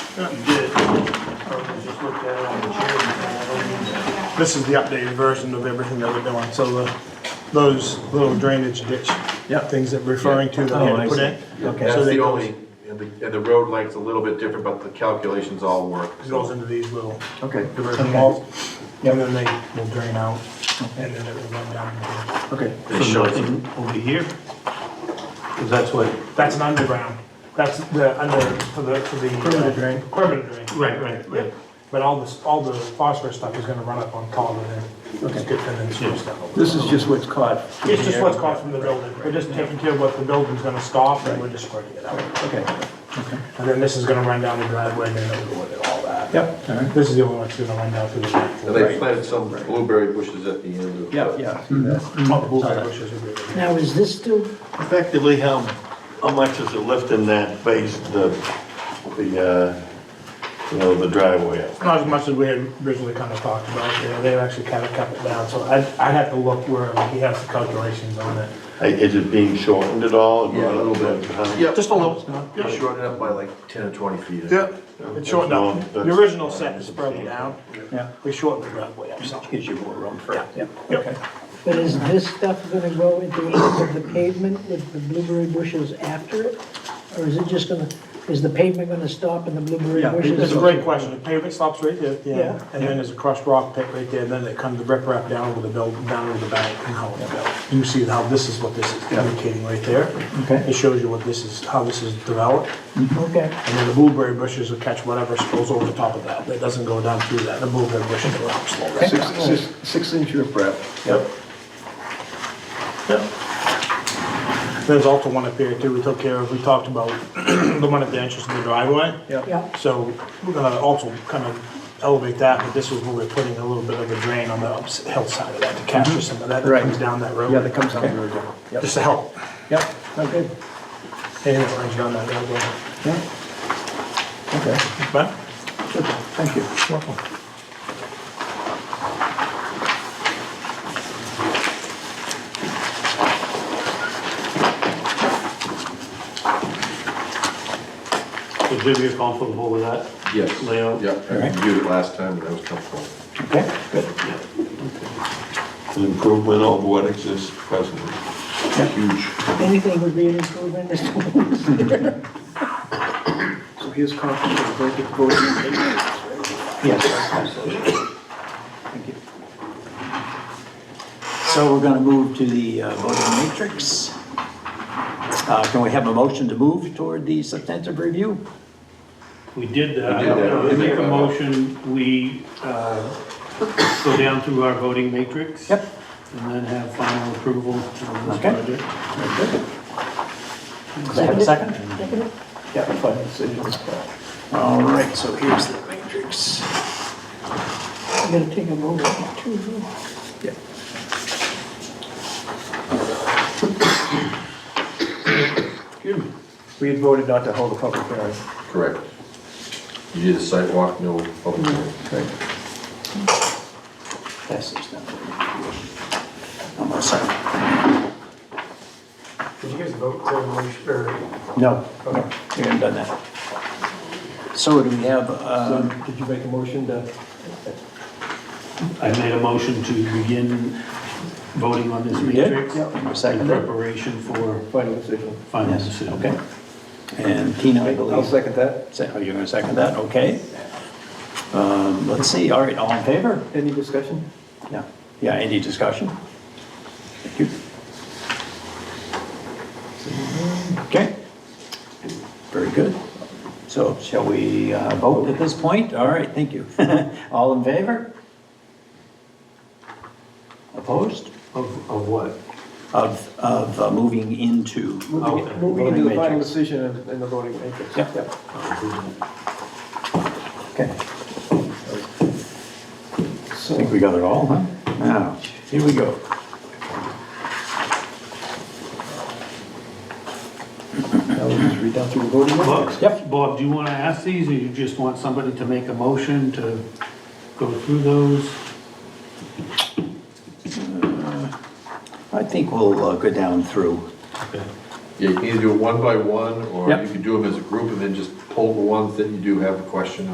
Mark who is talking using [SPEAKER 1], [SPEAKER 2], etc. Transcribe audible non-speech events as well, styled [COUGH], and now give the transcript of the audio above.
[SPEAKER 1] Something good. I was just looking at it on the chair before. This is the updated version of everything that we're doing, so the, those little drainage ditch.
[SPEAKER 2] Yep.
[SPEAKER 1] Things that we're referring to that we
[SPEAKER 2] Oh,
[SPEAKER 1] had
[SPEAKER 2] I
[SPEAKER 1] to put
[SPEAKER 2] see.
[SPEAKER 1] in.
[SPEAKER 2] Okay.
[SPEAKER 1] So
[SPEAKER 3] That's
[SPEAKER 1] that
[SPEAKER 3] the
[SPEAKER 1] goes-
[SPEAKER 3] only, and the, and the road length's a little bit different, but the calculations all work.
[SPEAKER 1] it Goes into these little
[SPEAKER 2] Okay.
[SPEAKER 1] diversion walls, and then they will drain out, and then it will run down.
[SPEAKER 2] Okay.
[SPEAKER 3] They show it.
[SPEAKER 4] Nothing over here? Because that's what,
[SPEAKER 5] That's an underground, that's the, under, for the, for the.
[SPEAKER 1] Perimeter drain.
[SPEAKER 5] Perimeter drain.
[SPEAKER 4] right, right, right.
[SPEAKER 5] Yep. But all this, all the phosphorus stuff is gonna run up on top of it. Just get that in the sewer stuff.
[SPEAKER 2] This is just what's caught.
[SPEAKER 5] It's just what's caught from the building, we're just taking care of what the building's gonna stop, and we're just spreading it out.
[SPEAKER 2] Okay.
[SPEAKER 5] And then this is gonna run down the driveway, and then it'll go with it, all that.
[SPEAKER 2] Yep. All right.
[SPEAKER 5] This is the only one that's gonna run down through the back.
[SPEAKER 3] And they planted some blueberry bushes at the end of.
[SPEAKER 2] Yeah, yeah. I see that.
[SPEAKER 5] All the blueberry bushes will be-
[SPEAKER 6] Now, is this still,
[SPEAKER 4] Effectively, how, how much is it lifting that base, the, the, uh, you know, the driveway up?
[SPEAKER 5] Not as much as we had originally kind of talked about, you know, they've actually kind of cut it down, so I'd, I'd have to look where he has the calculations on it.
[SPEAKER 4] I- Is it being shortened at all?
[SPEAKER 3] Yeah, a little bit.
[SPEAKER 4] Huh?
[SPEAKER 3] Yep.
[SPEAKER 1] Just a little.
[SPEAKER 3] They shortened up by like ten or twenty feet.
[SPEAKER 1] Yep, it's shortened up.
[SPEAKER 4] That's
[SPEAKER 1] The
[SPEAKER 4] long.
[SPEAKER 1] original set is probably down.
[SPEAKER 2] Yeah.
[SPEAKER 1] We shortened the driveway up some.
[SPEAKER 2] Gives you more room for it. Yeah.
[SPEAKER 1] Yep.
[SPEAKER 6] but is this stuff gonna go at the end of the pavement with the blueberry bushes after it? Or is it just gonna, is the pavement gonna stop and the blueberry
[SPEAKER 2] Yeah,
[SPEAKER 6] bushes?
[SPEAKER 1] That's a great question. The pavement stops right there at the end,
[SPEAKER 6] Yeah.
[SPEAKER 1] and then there's a crushed rock pit right there, and then it comes the rip wrap down with the build, down with the bank and how it built. You see how this is what this is indicating right there.
[SPEAKER 2] Okay.
[SPEAKER 1] It shows you what this is, how this is developed,
[SPEAKER 6] Okay,
[SPEAKER 1] and then the blueberry bushes will catch whatever goes over the top of that. That doesn't go down through that. The blueberry bushes will help slow that
[SPEAKER 2] Six,
[SPEAKER 1] down.
[SPEAKER 2] six, six inch rip wrap.
[SPEAKER 4] Yep.
[SPEAKER 1] There's also one up here too, we took care of, we talked about [CLEARS THROAT] the one at the entrance to the driveway.
[SPEAKER 2] Yep.
[SPEAKER 6] yeah,
[SPEAKER 1] So we're gonna also kind of elevate that, but this is where we're putting a little bit of a drain on the ups- hillside of that to capture some of that that
[SPEAKER 2] Mm-hmm. Right.
[SPEAKER 1] comes down that road.
[SPEAKER 2] Yeah, that comes out the road. Yep.
[SPEAKER 1] Just to help.
[SPEAKER 2] Yep. Oh, good.
[SPEAKER 1] Anything that runs down that roadway.
[SPEAKER 2] Yeah. Okay.
[SPEAKER 1] But
[SPEAKER 2] Okay. Thank you.
[SPEAKER 4] So Jim, you're comfortable with that?
[SPEAKER 3] Yes.
[SPEAKER 4] Layout?
[SPEAKER 3] Yep, I reviewed it last time and I was comfortable.
[SPEAKER 2] Okay. Good.
[SPEAKER 4] An improvement of what exists presently.
[SPEAKER 3] Huge.
[SPEAKER 6] anything would be an improvement, [LAUGHS] Mr. Wilson.
[SPEAKER 2] So here's copies of the blanket voting. Yes. Thank you. So we're going to move to the uh, voting matrix. Uh, Can we have a motion to move toward the substantive review?
[SPEAKER 4] We did
[SPEAKER 3] We did that.
[SPEAKER 4] I make a motion, we uh, go down through our voting matrix.
[SPEAKER 2] Yep.
[SPEAKER 4] And then have final approval on this
[SPEAKER 2] Okay.
[SPEAKER 4] project.
[SPEAKER 2] Does that have a second?
[SPEAKER 6] Second it?
[SPEAKER 2] Yeah, fine, decision. All right, so here's the matrix.
[SPEAKER 6] I gotta take a vote on that too. huh?
[SPEAKER 2] Yeah. We had voted not to hold a public hearing.
[SPEAKER 3] Correct. You did a site walk, no public
[SPEAKER 2] Mm-hmm.
[SPEAKER 3] hearing.
[SPEAKER 2] Passes now. I'm all set.
[SPEAKER 5] Did you guys vote to, motion- or
[SPEAKER 2] No, no, we haven't done that. So do we have, uh,
[SPEAKER 7] Um, Did you make a motion to?
[SPEAKER 4] I made a motion to begin voting on this
[SPEAKER 2] we did?
[SPEAKER 4] matrix.
[SPEAKER 2] Yep.
[SPEAKER 4] In
[SPEAKER 2] Second,
[SPEAKER 4] preparation for
[SPEAKER 7] Final decision.
[SPEAKER 4] final
[SPEAKER 2] yes,
[SPEAKER 4] decision.
[SPEAKER 2] okay. And Tina, I believe.
[SPEAKER 7] I'll second that.
[SPEAKER 2] Say, oh, you're gonna second that, okay. Um, let's see, all right, all in favor?
[SPEAKER 7] Any discussion?
[SPEAKER 2] Yeah, yeah, any discussion? Thank you. Okay, very good. So shall we uh, vote at this point? All right, thank you. [LAUGHS] All in favor? Opposed?
[SPEAKER 4] Of, of what?
[SPEAKER 2] Of, of uh, moving into.
[SPEAKER 4] Moving-
[SPEAKER 7] Moving into the final
[SPEAKER 2] Voting matrix.
[SPEAKER 7] decision and and the voting matrix.
[SPEAKER 2] Yep. Okay, I think
[SPEAKER 7] So,
[SPEAKER 2] we got it all, huh? Now, here we go.
[SPEAKER 7] now we'll just read down through the voting matrix.
[SPEAKER 2] Yep.
[SPEAKER 4] Bob, Bob, do you want to ask these, or you just want somebody to make a motion to go through those?
[SPEAKER 2] I think we'll uh, go down through.
[SPEAKER 3] Yeah, you can either do it one by one, or
[SPEAKER 2] Yep.
[SPEAKER 3] you could do them as a group and then just pull the ones that you do have a question on.